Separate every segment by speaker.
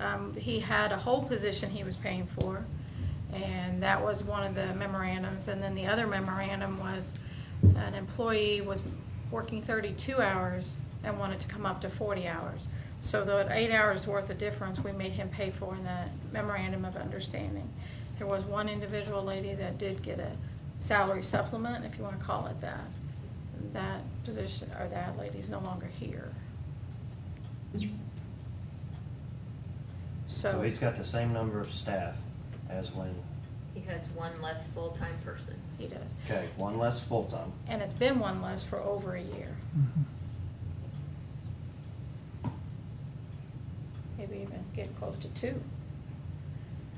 Speaker 1: um, he had a whole position he was paying for, and that was one of the memorandums. And then the other memorandum was an employee was working 32 hours and wanted to come up to 40 hours. So the eight hours worth of difference, we made him pay for in the memorandum of understanding. There was one individual lady that did get a salary supplement, if you want to call it that. That position, or that lady's no longer here.
Speaker 2: So
Speaker 1: So,
Speaker 2: he's got the same number of staff as when,
Speaker 3: He has one less full-time person.
Speaker 1: he does.
Speaker 2: okay, one less full-time.
Speaker 1: And it's been one less for over a year,
Speaker 4: Mhm.
Speaker 1: maybe even get close to two.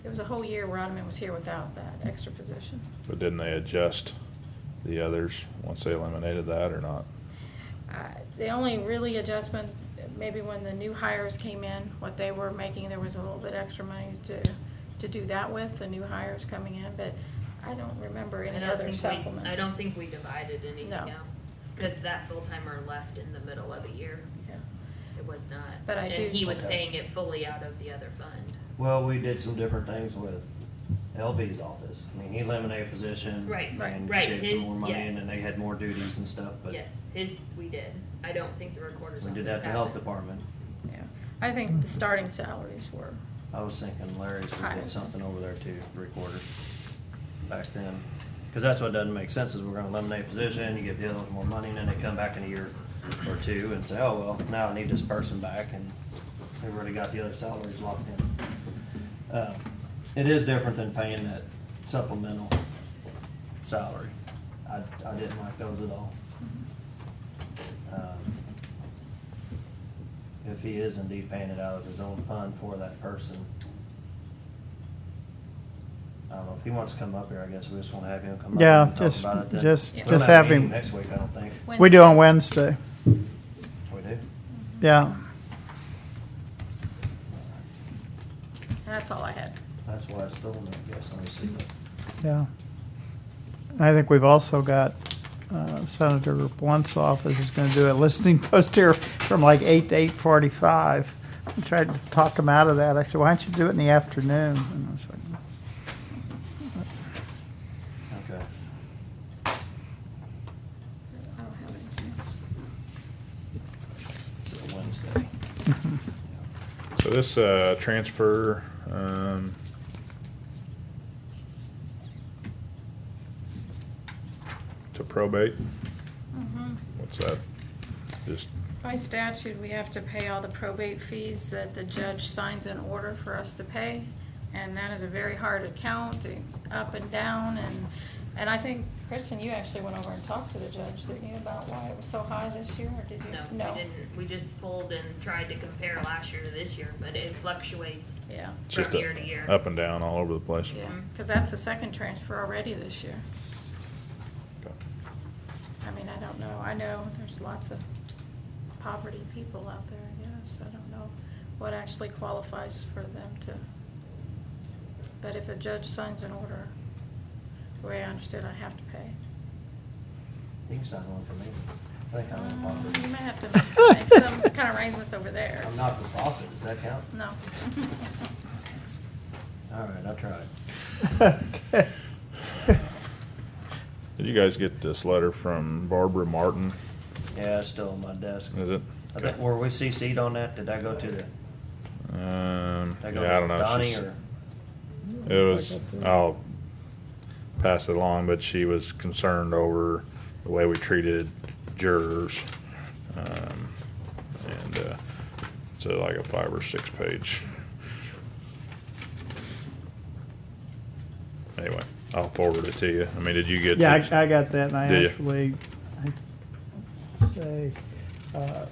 Speaker 1: It was a whole year where Ottoman was here without that extra position.
Speaker 5: But didn't they adjust the others once they eliminated that or not?
Speaker 1: Uh, The only really adjustment, maybe when the new hires came in, what they were making, there was a little bit extra money to, to do that with, the new hires coming in, but I don't remember
Speaker 3: I
Speaker 1: any
Speaker 3: don't
Speaker 1: other
Speaker 3: think we-
Speaker 1: supplements.
Speaker 3: I don't think we divided anything
Speaker 1: No.
Speaker 3: out, because that full-timer left in the middle of a year.
Speaker 1: Yeah.
Speaker 3: It was not.
Speaker 1: But I do-
Speaker 3: And he was
Speaker 2: Okay.
Speaker 3: paying it fully out of the other fund.
Speaker 2: Well, we did some different things with LB's office. I mean, he eliminated a position.
Speaker 3: Right,
Speaker 1: right,
Speaker 2: and
Speaker 3: right,
Speaker 2: Gave
Speaker 3: his-
Speaker 2: some more money
Speaker 3: yes.
Speaker 2: and then they had more duties and stuff, but
Speaker 3: Yes, his, we did. I don't think the recorder's
Speaker 2: we
Speaker 3: office
Speaker 2: did that to health
Speaker 3: happened.
Speaker 2: department.
Speaker 1: Yeah. I
Speaker 4: Mm-hmm.
Speaker 1: think the starting salaries were,
Speaker 2: I was thinking Larry's would
Speaker 1: Higher.
Speaker 2: get something over there too, recorder, back then. Cause that's what doesn't make sense is we're gonna eliminate a position, you give the others more money and then they come back in a year or two and say, oh, well, now I need this person back and they've already got the other salaries locked in. Uh, It is different than paying that supplemental salary. I, I didn't like those at all.
Speaker 1: Mm-hmm.
Speaker 2: Um, If he is indeed paying it out of his own fund for that person. I don't know, if he wants to come up here, I guess we just wanna have him come up
Speaker 4: Yeah,
Speaker 2: and talk
Speaker 4: just-
Speaker 2: about it then.
Speaker 4: just-
Speaker 2: We don't
Speaker 4: just
Speaker 2: a
Speaker 4: have
Speaker 2: meeting
Speaker 4: him.
Speaker 2: Next week, I don't think.
Speaker 4: We do on Wednesday,
Speaker 2: We do?
Speaker 4: yeah.
Speaker 1: that's all I had.
Speaker 2: That's why it's still, I guess, let me see.
Speaker 4: Yeah. I think we've also got uh, Senator Blunt's office is going to do a listening post here from like eight to eight forty-five. I tried to talk him out of that. I said, why don't you do it in the afternoon? And I was like,
Speaker 2: Okay.
Speaker 1: I don't have anything.
Speaker 2: So Wednesday.
Speaker 5: So this, uh, transfer, um, to probate,
Speaker 1: Mhm.
Speaker 5: what's that? Just,
Speaker 1: By statute, we have to pay all the probate fees that the judge signs an order for us to pay, and that is a very hard account, eh, up and down, and, and I think, Kristen, you actually went over and talked to the judge, didn't you, about why it was so high this year, or did you?
Speaker 3: No, we didn't. We just pulled and tried to compare last year to this year, but it fluctuates.
Speaker 1: Yeah,
Speaker 5: it's just
Speaker 3: From year to year.
Speaker 5: a- up and down all over the place.
Speaker 1: yeah, because that's the second transfer already this year.
Speaker 5: Okay.
Speaker 1: I mean, I don't know, I know there's lots of poverty people out there, I guess, I don't know what actually qualifies for them to. But if a judge signs an order, the way I understood, I have to pay.
Speaker 2: You can sign one for me. I think I'm in
Speaker 1: Um, You may
Speaker 2: poverty.
Speaker 1: have to make some kind of arrangements over there.
Speaker 2: I'm not for profit, does that count?
Speaker 1: No.
Speaker 2: All right, I tried.
Speaker 4: okay.
Speaker 5: Did you guys get this letter from Barbara Martin?
Speaker 2: Yeah, it's still on my desk.
Speaker 5: Is it?
Speaker 2: I think, were we CC'd on that? Did I go to the, did
Speaker 5: Um,
Speaker 2: I go
Speaker 5: yeah, I
Speaker 2: to
Speaker 5: don't know.
Speaker 2: Donnie
Speaker 5: She's-
Speaker 2: or?
Speaker 5: It was, I'll pass it along, but she was concerned over the way we treated jurors. Um, And, uh, it's uh, like a five or six page. Anyway, I'll forward it to you. I mean, did you get?
Speaker 4: Yeah,
Speaker 5: this?
Speaker 4: I, I got that and I
Speaker 5: Did you?
Speaker 4: actually, I say, uh,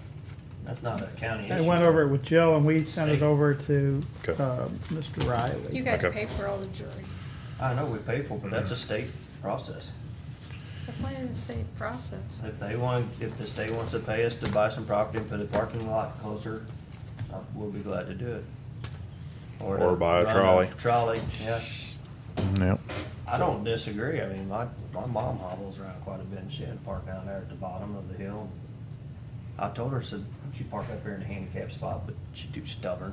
Speaker 2: That's not a county issue.
Speaker 4: I went over it with Joe and we sent it
Speaker 2: State.
Speaker 4: over to,
Speaker 5: Okay.
Speaker 4: uh, Mr. Riley.
Speaker 1: You guys
Speaker 5: Okay.
Speaker 1: pay for all the jury.
Speaker 2: I know we pay for, it, but that's a
Speaker 5: Mm-hmm.
Speaker 2: state process.
Speaker 1: They're playing the state process.
Speaker 2: If they want, if the state wants to pay us to buy some property and put a parking lot closer, uh, we'll be glad to do it. to
Speaker 5: Or buy a
Speaker 2: run
Speaker 5: trolley.
Speaker 2: Trolley, yeah.
Speaker 5: Yep.
Speaker 2: I don't disagree. I mean, my, my mom hobbles around quite a bit and she had to park down there at the bottom of the hill. I told her, I said, she park up here in the handicap spot, but she too stubborn.